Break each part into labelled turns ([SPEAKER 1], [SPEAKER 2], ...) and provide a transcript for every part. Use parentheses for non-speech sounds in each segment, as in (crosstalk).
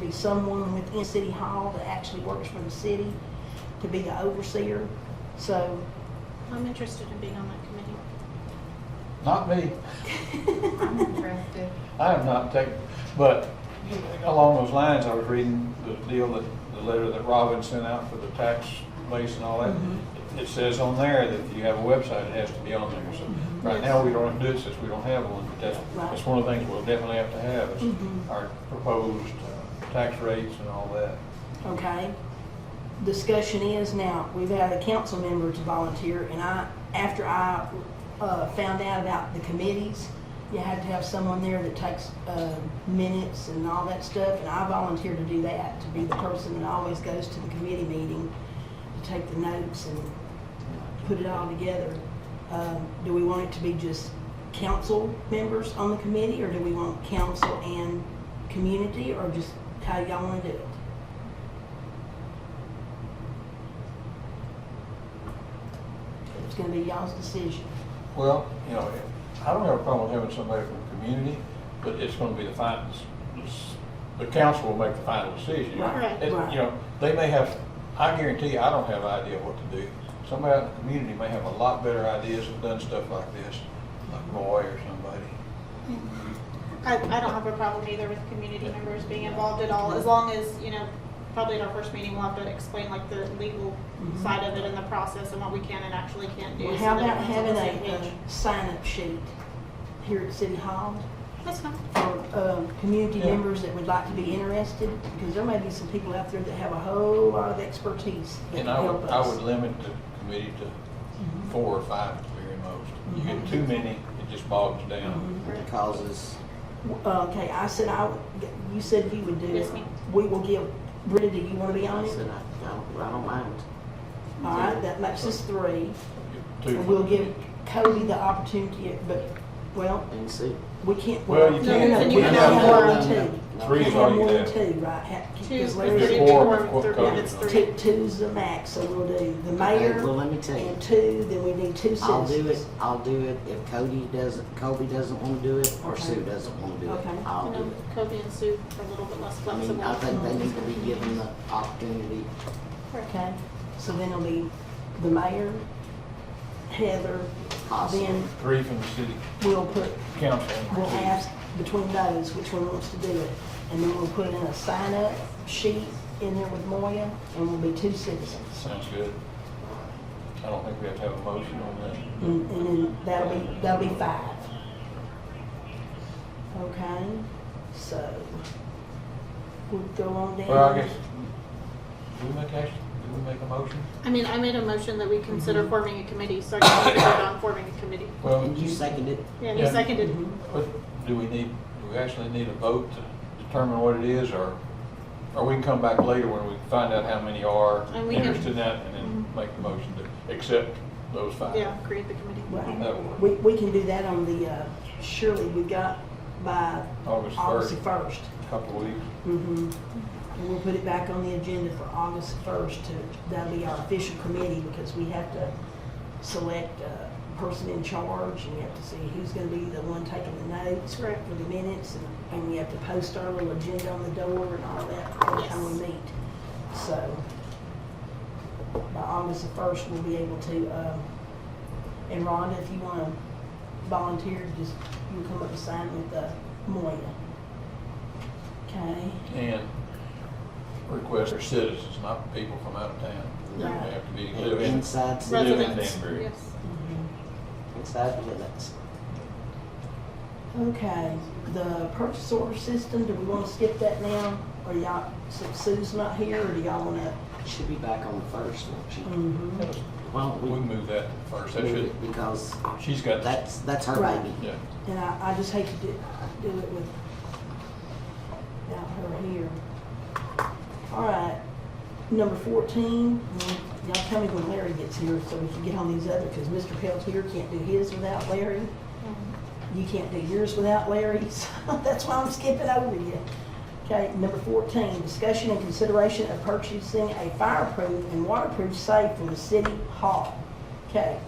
[SPEAKER 1] be someone within City Hall that actually works for the city to be the overseer. So,
[SPEAKER 2] I'm interested in being on that committee.
[SPEAKER 3] Not me.
[SPEAKER 4] I'm interested.
[SPEAKER 3] I have not taken, but along those lines, I was reading the deal that, the letter that Robin sent out for the tax base and all that. It says on there that if you have a website, it has to be on there. So right now, we don't have to do it since we don't have one, but that's,
[SPEAKER 1] Right.
[SPEAKER 3] that's one of the things we'll definitely have to have is
[SPEAKER 1] Mhm.
[SPEAKER 3] our proposed uh, tax rates and all that.
[SPEAKER 1] okay. Discussion is now, we've had a council member to volunteer and I, after I, uh, found out about the committees, you had to have someone there that takes, uh, minutes and all that stuff and I volunteered to do that, to be the person that always goes to the committee meeting to take the notes and put it all together. Um, Do we want it to be just council members on the committee, or do we want council and community, or just how y'all want to do it? It's gonna be y'all's decision.
[SPEAKER 3] Well, you know, I don't have a problem with having somebody from the community, but it's gonna be the final, the council will make the final decision.
[SPEAKER 1] Right,
[SPEAKER 3] It-
[SPEAKER 1] right.
[SPEAKER 3] You know, they may have, I guarantee you, I don't have an idea what to do. Somebody out in the community may have a lot better ideas and done stuff like this, like Roy or somebody.
[SPEAKER 1] Mm-hmm.
[SPEAKER 2] I, I don't have a problem either with community members being involved at all, as long as, you know, probably at our first meeting, we'll have to explain like the legal
[SPEAKER 1] Mhm.
[SPEAKER 2] side of it and the process and what we can and actually can't do.
[SPEAKER 1] Well,
[SPEAKER 2] so
[SPEAKER 1] how
[SPEAKER 2] that
[SPEAKER 1] about
[SPEAKER 2] everyone's on the
[SPEAKER 1] having
[SPEAKER 2] same
[SPEAKER 1] a,
[SPEAKER 2] page.
[SPEAKER 1] a sign-up sheet here at City Hall?
[SPEAKER 2] That's fine.
[SPEAKER 1] for um, community
[SPEAKER 3] Yeah.
[SPEAKER 1] members that would like to be interested, because there may be some people out there that have a whole lot of expertise that can
[SPEAKER 3] And I
[SPEAKER 1] help
[SPEAKER 3] would, I would
[SPEAKER 1] us.
[SPEAKER 3] limit the committee to
[SPEAKER 1] Mhm.
[SPEAKER 3] four or five at the very most. You get too
[SPEAKER 1] Mm-hmm.
[SPEAKER 3] many, it just bogs down.
[SPEAKER 5] What the causes,
[SPEAKER 1] W- Uh, Okay, I said I, would- you said you would do it.
[SPEAKER 2] Yes, ma'am.
[SPEAKER 1] We will give, Britta, do you want to be on
[SPEAKER 5] I
[SPEAKER 1] it?
[SPEAKER 5] said, I I don't, I don't mind.
[SPEAKER 1] All right, that makes us three.
[SPEAKER 3] Two
[SPEAKER 1] And Mm-hmm. we'll give Cody the opportunity, but, well,
[SPEAKER 5] And see,
[SPEAKER 1] we can't.
[SPEAKER 3] Well, you
[SPEAKER 1] no,
[SPEAKER 3] can't.
[SPEAKER 1] No, no,
[SPEAKER 2] You
[SPEAKER 1] we
[SPEAKER 2] can
[SPEAKER 1] can't
[SPEAKER 2] have
[SPEAKER 1] have more
[SPEAKER 2] one.
[SPEAKER 1] than two.
[SPEAKER 3] Three
[SPEAKER 1] Can't
[SPEAKER 3] is
[SPEAKER 1] have
[SPEAKER 3] all you
[SPEAKER 1] more than
[SPEAKER 3] have.
[SPEAKER 1] Two, right? Ha-
[SPEAKER 2] Two's
[SPEAKER 1] because
[SPEAKER 2] the
[SPEAKER 1] Larry's-
[SPEAKER 3] If
[SPEAKER 2] three,
[SPEAKER 3] it's four,
[SPEAKER 2] four,
[SPEAKER 3] what
[SPEAKER 2] three,
[SPEAKER 3] code?
[SPEAKER 2] it's three.
[SPEAKER 1] Two, two's the max, so we'll do the
[SPEAKER 5] Okay,
[SPEAKER 1] mayor.
[SPEAKER 5] well, let me tell you,
[SPEAKER 1] And two, then we need two
[SPEAKER 5] I'll do it,
[SPEAKER 1] citizens.
[SPEAKER 5] I'll do it if Cody doesn't, Kobe doesn't wanna do it, or
[SPEAKER 1] Okay.
[SPEAKER 5] Sue doesn't wanna do it,
[SPEAKER 1] Okay.
[SPEAKER 5] I'll
[SPEAKER 2] You
[SPEAKER 5] do
[SPEAKER 2] know,
[SPEAKER 5] it.
[SPEAKER 2] Kobe and Sue are a little bit less
[SPEAKER 5] I mean,
[SPEAKER 2] flexible.
[SPEAKER 5] I think they need to be given the opportunity,
[SPEAKER 1] Okay, so then it'll be the mayor, Heather,
[SPEAKER 5] Possible.
[SPEAKER 1] then
[SPEAKER 3] Three from the city
[SPEAKER 1] we'll put,
[SPEAKER 3] council.
[SPEAKER 1] we'll ask between those which one wants to do it. And then we'll put in a sign-up sheet in there with Moya, and we'll be two citizens.
[SPEAKER 3] Sounds good. I don't think we have to have a motion on that.
[SPEAKER 1] And and then that'll be, that'll be five. Okay, so we'll go on down.
[SPEAKER 3] Well, I guess, do we make action, do we make a motion?
[SPEAKER 2] I mean, I made a motion that we consider
[SPEAKER 1] Mm-hmm.
[SPEAKER 2] forming a committee, so I can vote on forming a committee.
[SPEAKER 3] Well,
[SPEAKER 5] and you seconded,
[SPEAKER 2] Yeah, and you
[SPEAKER 3] Yeah.
[SPEAKER 2] seconded.
[SPEAKER 1] Mm-hmm.
[SPEAKER 3] what- do we need, do we actually need a vote to determine what it is, or, or we can come back later when we find out how many are
[SPEAKER 2] And we can- Mm-hmm.
[SPEAKER 3] interested in that, and then make the motion to accept those five?
[SPEAKER 2] Yeah, create the committee.
[SPEAKER 1] Right.
[SPEAKER 3] That would
[SPEAKER 1] We,
[SPEAKER 3] work.
[SPEAKER 1] we can do that on the, uh, surely we got by
[SPEAKER 3] August
[SPEAKER 1] August
[SPEAKER 3] first,
[SPEAKER 1] first.
[SPEAKER 3] couple of weeks.
[SPEAKER 1] Mhm. And we'll put it back on the agenda for August first to, that'll be our official committee because we have to select a person in charge and we have to see who's gonna be the one taking the notes for
[SPEAKER 2] Correct.
[SPEAKER 1] the minutes and, and we have to post our little agenda on the door and all that every time we
[SPEAKER 2] Yes.
[SPEAKER 1] meet. So by August the first, we'll be able to, um, and Rhonda, if you wanna volunteer, just, you come up and sign with, uh, Moya. Okay?
[SPEAKER 3] And request for citizens, not people from out of town. They
[SPEAKER 1] Yeah.
[SPEAKER 3] have to be, live in,
[SPEAKER 5] inside city
[SPEAKER 3] live in
[SPEAKER 2] Residents,
[SPEAKER 3] Danbury.
[SPEAKER 2] yes.
[SPEAKER 5] inside the limits.
[SPEAKER 1] Okay, the purchase order system, do we wanna skip that now? Or y'all, since Sue's not here, or do y'all wanna?
[SPEAKER 5] She'll be back on the first, won't she?
[SPEAKER 1] Mm-hmm.
[SPEAKER 5] Why don't
[SPEAKER 3] We
[SPEAKER 5] we
[SPEAKER 3] can move that first, that
[SPEAKER 5] move
[SPEAKER 3] should,
[SPEAKER 5] it, because
[SPEAKER 3] she's got,
[SPEAKER 5] that's, that's her
[SPEAKER 1] Right.
[SPEAKER 5] baby.
[SPEAKER 3] yeah.
[SPEAKER 1] And I, I just hate to do, do it with, without her here. All right, number fourteen, mm, y'all tell me when Larry gets here so we can get on these other, cause Mr. Peltier can't do his without Larry. You can't do yours without Larry's. (laughs) That's why I'm skipping over you. Okay, number fourteen, discussion and consideration of purchasing a fireproof and waterproof safe for the city hall. Okay,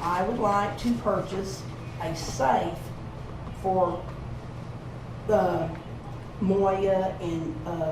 [SPEAKER 1] I would like to purchase a safe for, uh, Moya and, uh,